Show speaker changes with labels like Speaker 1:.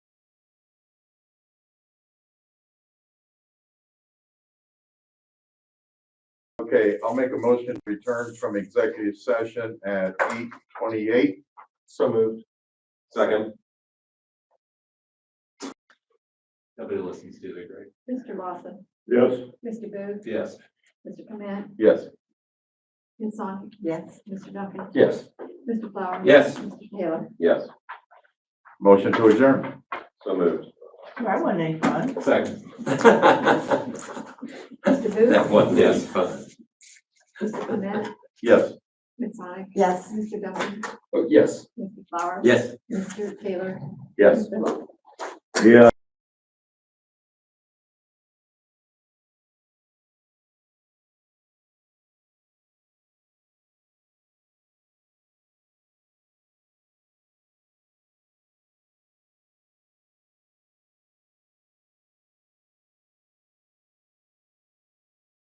Speaker 1: Okay, I'll make a motion to return from executive session at eight twenty-eight.
Speaker 2: So moved. Second.
Speaker 3: Nobody listens to it, right?
Speaker 4: Mr. Lawson,
Speaker 2: Yes.
Speaker 4: Mr. Booth,
Speaker 3: Yes.
Speaker 4: Mr. Clement,
Speaker 1: Yes.
Speaker 4: Ms. Sonic,
Speaker 5: Yes.
Speaker 4: Mr. Duncan,
Speaker 2: Yes.
Speaker 4: Mr. Flower.
Speaker 3: Yes.
Speaker 4: Mr. Taylor.
Speaker 2: Yes.
Speaker 1: Motion to adjourn.
Speaker 2: So moved.
Speaker 5: I want any fun.
Speaker 3: Second.
Speaker 4: Mr. Booth,
Speaker 3: wasn't as fun.
Speaker 4: Mr. Clement,
Speaker 1: Yes.
Speaker 4: Ms. Sonic,
Speaker 5: Yes.
Speaker 4: Mr. Duncan,
Speaker 2: Oh, Yes.
Speaker 4: Mr. Flower.
Speaker 3: Yes.
Speaker 4: Mr. Taylor.
Speaker 1: Yes.
Speaker 4: Mr. Lawson.
Speaker 2: Yeah.